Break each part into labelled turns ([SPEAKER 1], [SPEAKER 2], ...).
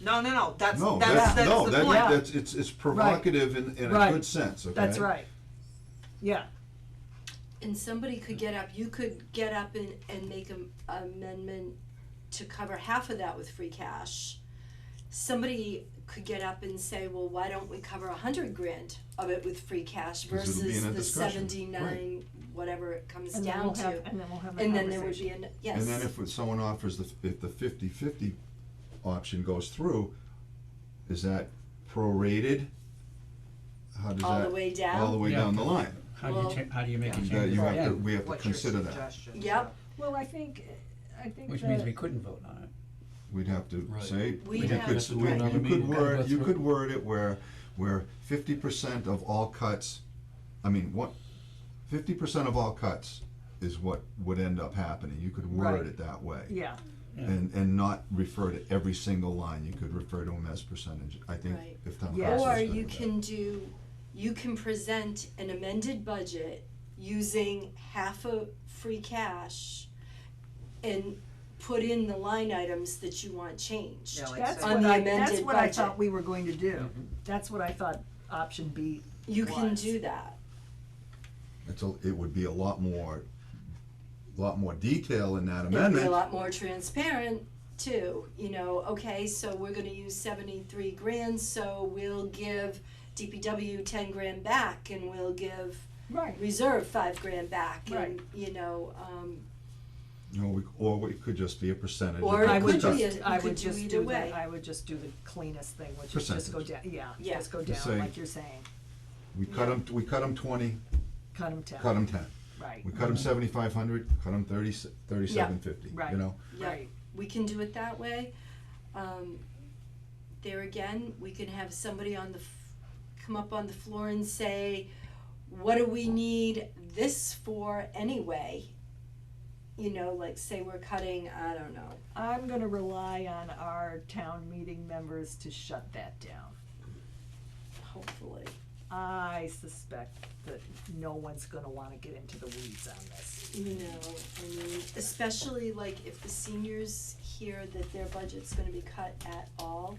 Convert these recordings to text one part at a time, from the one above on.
[SPEAKER 1] No, no, no, that's,
[SPEAKER 2] No,
[SPEAKER 1] that's,
[SPEAKER 2] that's,
[SPEAKER 1] that's
[SPEAKER 2] no,
[SPEAKER 1] the
[SPEAKER 2] that,
[SPEAKER 1] point.
[SPEAKER 2] that's, it's, it's provocative in, in a
[SPEAKER 3] Right.
[SPEAKER 2] good sense, okay?
[SPEAKER 3] That's right. Yeah,
[SPEAKER 4] And somebody could
[SPEAKER 2] Mm.
[SPEAKER 4] get up, you could get up and, and make an amendment to cover half of that with free cash. Somebody could get up and say, well, why don't we cover a hundred grand of it with free cash
[SPEAKER 2] 'Cause it'll be
[SPEAKER 4] versus
[SPEAKER 2] in a
[SPEAKER 4] the
[SPEAKER 2] discussion,
[SPEAKER 4] seventy-nine, whatever it comes
[SPEAKER 3] and then
[SPEAKER 4] down
[SPEAKER 3] we'll
[SPEAKER 4] to.
[SPEAKER 3] have, and then we'll have that
[SPEAKER 4] And then there would
[SPEAKER 3] conversation.
[SPEAKER 4] be an, yes.
[SPEAKER 2] And then if someone offers the, if the fifty-fifty option goes through, is that prorated? How does that?
[SPEAKER 4] All the way down?
[SPEAKER 2] All the way
[SPEAKER 5] Yeah.
[SPEAKER 2] down the line.
[SPEAKER 5] How do you
[SPEAKER 4] Well-
[SPEAKER 5] cha- how do you make a
[SPEAKER 2] Is
[SPEAKER 5] change?
[SPEAKER 2] that you have
[SPEAKER 5] at the
[SPEAKER 2] to,
[SPEAKER 5] end?
[SPEAKER 2] we have to
[SPEAKER 1] What's your
[SPEAKER 2] consider that.
[SPEAKER 1] suggestion?
[SPEAKER 4] Yep,
[SPEAKER 3] Well, I think, I think
[SPEAKER 5] Which
[SPEAKER 3] the-
[SPEAKER 5] means we couldn't vote on it.
[SPEAKER 2] We'd have to
[SPEAKER 6] Right.
[SPEAKER 2] say,
[SPEAKER 4] We'd
[SPEAKER 2] you
[SPEAKER 4] have
[SPEAKER 2] could,
[SPEAKER 4] to-
[SPEAKER 2] we-
[SPEAKER 4] Right.
[SPEAKER 2] you
[SPEAKER 6] Meeting,
[SPEAKER 2] could
[SPEAKER 6] gotta go
[SPEAKER 2] word, you
[SPEAKER 6] through.
[SPEAKER 2] could word it where, where fifty percent of all cuts, I mean, what, fifty percent of all cuts is what would end up happening, you could
[SPEAKER 3] Right.
[SPEAKER 2] word it that way.
[SPEAKER 3] yeah,
[SPEAKER 2] And, and not refer to every single line, you could refer to them as percentage, I think,
[SPEAKER 4] Right.
[SPEAKER 2] if town council's
[SPEAKER 3] Yeah.
[SPEAKER 4] Or
[SPEAKER 2] gonna
[SPEAKER 4] you
[SPEAKER 2] do that.
[SPEAKER 4] can do, you can present an amended budget using half of free cash and put in the line items that you want changed.
[SPEAKER 1] Yeah, like
[SPEAKER 3] that's
[SPEAKER 1] say-
[SPEAKER 4] On
[SPEAKER 3] what
[SPEAKER 4] the
[SPEAKER 3] I, that's
[SPEAKER 4] amended
[SPEAKER 3] what I
[SPEAKER 4] budget.
[SPEAKER 3] thought we were going to do. That's what I thought option B,
[SPEAKER 4] You can
[SPEAKER 1] was.
[SPEAKER 4] do that,
[SPEAKER 2] It's a, it would be a lot more, lot more detail in that
[SPEAKER 4] it'd be a
[SPEAKER 2] amendment,
[SPEAKER 4] lot more transparent too, you know, okay, so we're gonna use seventy-three grand, so we'll give DPW ten grand back and we'll give
[SPEAKER 3] right,
[SPEAKER 4] reserve five grand back and,
[SPEAKER 3] Right.
[SPEAKER 4] you know, um,
[SPEAKER 2] you know, we, or it could just be a percentage of
[SPEAKER 4] Or
[SPEAKER 2] the
[SPEAKER 4] it
[SPEAKER 3] I would
[SPEAKER 4] could
[SPEAKER 2] cut.
[SPEAKER 3] just,
[SPEAKER 4] be a-
[SPEAKER 3] I
[SPEAKER 4] you could
[SPEAKER 3] would
[SPEAKER 4] do
[SPEAKER 3] just
[SPEAKER 4] either
[SPEAKER 3] do
[SPEAKER 4] way.
[SPEAKER 3] the, I would just do the cleanest thing, which is just go down,
[SPEAKER 2] Percentage.
[SPEAKER 3] yeah,
[SPEAKER 4] Yeah.
[SPEAKER 3] just go
[SPEAKER 2] Just
[SPEAKER 3] down,
[SPEAKER 2] say-
[SPEAKER 3] like you're saying,
[SPEAKER 2] We cut them, we cut them twenty,
[SPEAKER 3] cut them down,
[SPEAKER 2] cut them ten.
[SPEAKER 3] right,
[SPEAKER 2] We cut them seventy-five hundred, cut them thirty, thirty-seven fifty,
[SPEAKER 3] Right.
[SPEAKER 2] you know?
[SPEAKER 4] Yeah,
[SPEAKER 3] right,
[SPEAKER 4] we can do it that way. Um, there again, we can have somebody on the, f- come up on the floor and say, what do we need this for anyway? You know, like say we're cutting, I don't know,
[SPEAKER 3] I'm gonna rely on our town meeting members to shut that down.
[SPEAKER 4] hopefully.
[SPEAKER 3] I suspect that no one's gonna wanna get into the weeds on this.
[SPEAKER 4] No, I mean, especially like if the seniors hear that their budget's gonna be cut at all,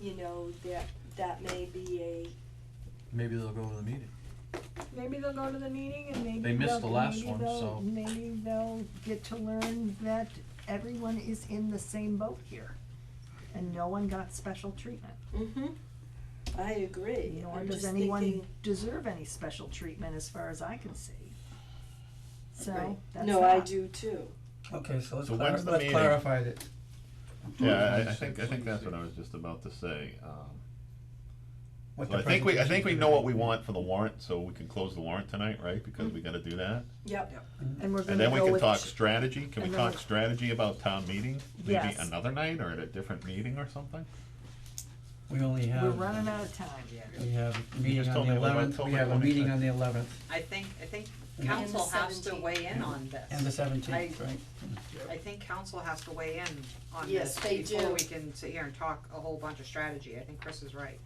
[SPEAKER 4] you know, that, that may be a,
[SPEAKER 6] Maybe they'll go to the meeting.
[SPEAKER 3] Maybe they'll go to the meeting and maybe
[SPEAKER 6] They missed
[SPEAKER 3] they'll,
[SPEAKER 6] the last
[SPEAKER 3] maybe
[SPEAKER 6] one,
[SPEAKER 3] they'll,
[SPEAKER 6] so-
[SPEAKER 3] maybe they'll get to learn that everyone is in the same boat here. And no one got special treatment,
[SPEAKER 4] mm-hmm, I agree,
[SPEAKER 3] nor
[SPEAKER 4] I'm just
[SPEAKER 3] does
[SPEAKER 4] thinking.
[SPEAKER 3] anyone deserve any special treatment as far as I can see. So,
[SPEAKER 4] Right.
[SPEAKER 3] that's
[SPEAKER 4] No, I
[SPEAKER 3] not-
[SPEAKER 4] do too.
[SPEAKER 5] Okay, so let's
[SPEAKER 7] So
[SPEAKER 5] clar-
[SPEAKER 7] when's the
[SPEAKER 5] let's
[SPEAKER 7] meeting?
[SPEAKER 5] clarify that.
[SPEAKER 7] Yeah, I, I think, I think that's what I was just about to say, um,
[SPEAKER 5] what
[SPEAKER 7] so I
[SPEAKER 5] the
[SPEAKER 7] think we, I think we
[SPEAKER 5] presentation
[SPEAKER 7] know what
[SPEAKER 5] is.
[SPEAKER 7] we want for the warrant, so we can close the warrant tonight, right, because we gotta do that?
[SPEAKER 4] Yep.
[SPEAKER 3] And we're
[SPEAKER 7] And
[SPEAKER 3] gonna
[SPEAKER 7] then
[SPEAKER 3] Mm-hmm.
[SPEAKER 7] we
[SPEAKER 3] go
[SPEAKER 7] can
[SPEAKER 3] with,
[SPEAKER 7] talk
[SPEAKER 3] ch-
[SPEAKER 7] strategy, can we
[SPEAKER 3] and then
[SPEAKER 7] talk
[SPEAKER 3] we-
[SPEAKER 7] strategy about town meeting, maybe
[SPEAKER 3] Yes.
[SPEAKER 7] another night, or at a different meeting or something?
[SPEAKER 5] We only have.
[SPEAKER 3] we're running out of time.
[SPEAKER 5] We have a meeting
[SPEAKER 7] just
[SPEAKER 5] on
[SPEAKER 7] told
[SPEAKER 5] the
[SPEAKER 7] me what about
[SPEAKER 5] eleventh, we
[SPEAKER 7] October
[SPEAKER 5] have a meeting
[SPEAKER 7] 25th?
[SPEAKER 5] on the eleventh
[SPEAKER 8] I think, I think
[SPEAKER 5] And
[SPEAKER 8] council
[SPEAKER 4] the
[SPEAKER 8] has to
[SPEAKER 4] 17th.
[SPEAKER 8] weigh in on this.
[SPEAKER 5] and the seventeenth,
[SPEAKER 8] I-
[SPEAKER 5] right?
[SPEAKER 8] I think council has to weigh in on
[SPEAKER 4] Yes,
[SPEAKER 8] this
[SPEAKER 4] they do.
[SPEAKER 8] before we can sit here and talk a whole bunch of strategy. I think Chris is right.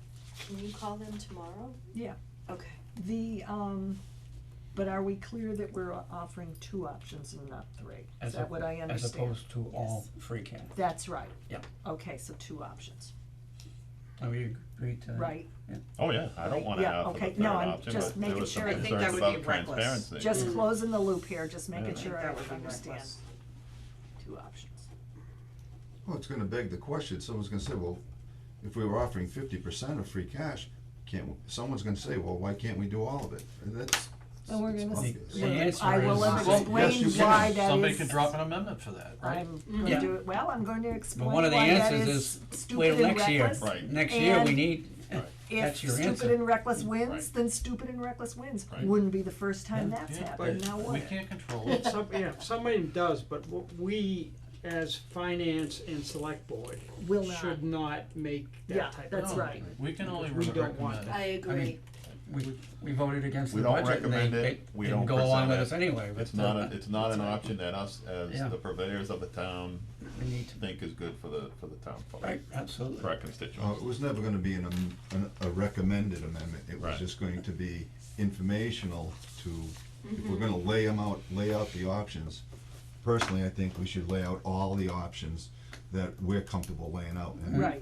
[SPEAKER 4] Can you call them tomorrow?
[SPEAKER 3] Yeah.
[SPEAKER 4] Okay.
[SPEAKER 3] The, um, but are we clear that we're offering two options and not three? Is
[SPEAKER 5] As
[SPEAKER 3] that
[SPEAKER 5] op-
[SPEAKER 3] what I
[SPEAKER 5] As
[SPEAKER 3] understand?
[SPEAKER 5] opposed to all free cash.
[SPEAKER 3] That's right.
[SPEAKER 5] Yeah.
[SPEAKER 3] Okay, so two options,
[SPEAKER 5] Are we agreed to that?
[SPEAKER 3] right?
[SPEAKER 7] Oh, yeah, I don't wanna
[SPEAKER 3] Yeah,
[SPEAKER 7] have for the
[SPEAKER 3] okay.
[SPEAKER 7] third
[SPEAKER 3] No, I'm
[SPEAKER 7] option,
[SPEAKER 3] just
[SPEAKER 7] but there
[SPEAKER 3] making
[SPEAKER 7] was some
[SPEAKER 3] sure. I think
[SPEAKER 7] concerns
[SPEAKER 8] that would be
[SPEAKER 7] about
[SPEAKER 8] reckless.
[SPEAKER 7] transparency.
[SPEAKER 3] Just
[SPEAKER 4] Mm.
[SPEAKER 3] closing the loop here, just making
[SPEAKER 7] Yeah.
[SPEAKER 8] I
[SPEAKER 3] sure
[SPEAKER 8] think that would
[SPEAKER 3] I
[SPEAKER 8] be
[SPEAKER 3] understand.
[SPEAKER 8] reckless.
[SPEAKER 3] Two options.
[SPEAKER 2] Well, Oh, it's gonna beg the question, someone's gonna say, well, if we were offering fifty percent of free cash, can't, someone's gonna say, well, why can't we do all of it? And that's,
[SPEAKER 3] And we're
[SPEAKER 2] it's
[SPEAKER 3] gonna,
[SPEAKER 2] obvious.
[SPEAKER 3] s-
[SPEAKER 5] The answer
[SPEAKER 3] I will
[SPEAKER 5] is-
[SPEAKER 2] Yes, you
[SPEAKER 3] explain
[SPEAKER 2] can.
[SPEAKER 3] why that is.
[SPEAKER 6] Somebody could drop an amendment for that, right?
[SPEAKER 3] I'm
[SPEAKER 5] Yeah.
[SPEAKER 3] gonna do, it. well, I'm going to explain
[SPEAKER 5] one
[SPEAKER 3] why
[SPEAKER 5] of the
[SPEAKER 3] that
[SPEAKER 5] answers
[SPEAKER 3] is
[SPEAKER 5] is
[SPEAKER 3] stupid and
[SPEAKER 5] wait next year.
[SPEAKER 3] reckless.
[SPEAKER 7] Right.
[SPEAKER 5] Next year, we
[SPEAKER 3] And
[SPEAKER 5] need,
[SPEAKER 3] If
[SPEAKER 5] that's your answer.
[SPEAKER 3] stupid and reckless wins,
[SPEAKER 7] Right.
[SPEAKER 3] then stupid and reckless wins.
[SPEAKER 7] Right.
[SPEAKER 3] Wouldn't be the first time
[SPEAKER 5] Yeah.
[SPEAKER 3] that's
[SPEAKER 6] Yeah.
[SPEAKER 3] happened, now
[SPEAKER 6] We
[SPEAKER 3] what?
[SPEAKER 6] can't control it.
[SPEAKER 9] Some, yeah, somebody does, but what we, as finance and select board,
[SPEAKER 3] Will not.
[SPEAKER 9] should not make
[SPEAKER 3] Yeah,
[SPEAKER 9] that type of.
[SPEAKER 3] That's right.
[SPEAKER 6] We can only
[SPEAKER 9] We don't
[SPEAKER 6] recommend.
[SPEAKER 9] want
[SPEAKER 4] I agree.
[SPEAKER 5] We, we voted against
[SPEAKER 7] We
[SPEAKER 5] the
[SPEAKER 7] don't
[SPEAKER 5] budget and they,
[SPEAKER 7] recommend
[SPEAKER 5] they
[SPEAKER 7] it. We
[SPEAKER 5] didn't
[SPEAKER 7] don't
[SPEAKER 5] go along
[SPEAKER 7] present
[SPEAKER 5] with
[SPEAKER 7] it.
[SPEAKER 5] us anyway, but.
[SPEAKER 7] It's not
[SPEAKER 5] uh,
[SPEAKER 7] a, it's not an
[SPEAKER 5] that's all right.
[SPEAKER 7] option that us,
[SPEAKER 5] Yeah.
[SPEAKER 7] as the purveyors of the town,
[SPEAKER 5] We need to,
[SPEAKER 7] think is good for the, for the town folk,
[SPEAKER 5] right, absolutely.
[SPEAKER 7] for our constituents.
[SPEAKER 2] Uh, it was never gonna be an, am- an, a recommended amendment, it was
[SPEAKER 7] Right.
[SPEAKER 2] just going to be informational to, if
[SPEAKER 3] Mm-hmm.
[SPEAKER 2] we're gonna lay them out, lay out the options, personally, I think we should lay out all the options that we're comfortable laying out. and
[SPEAKER 3] Right.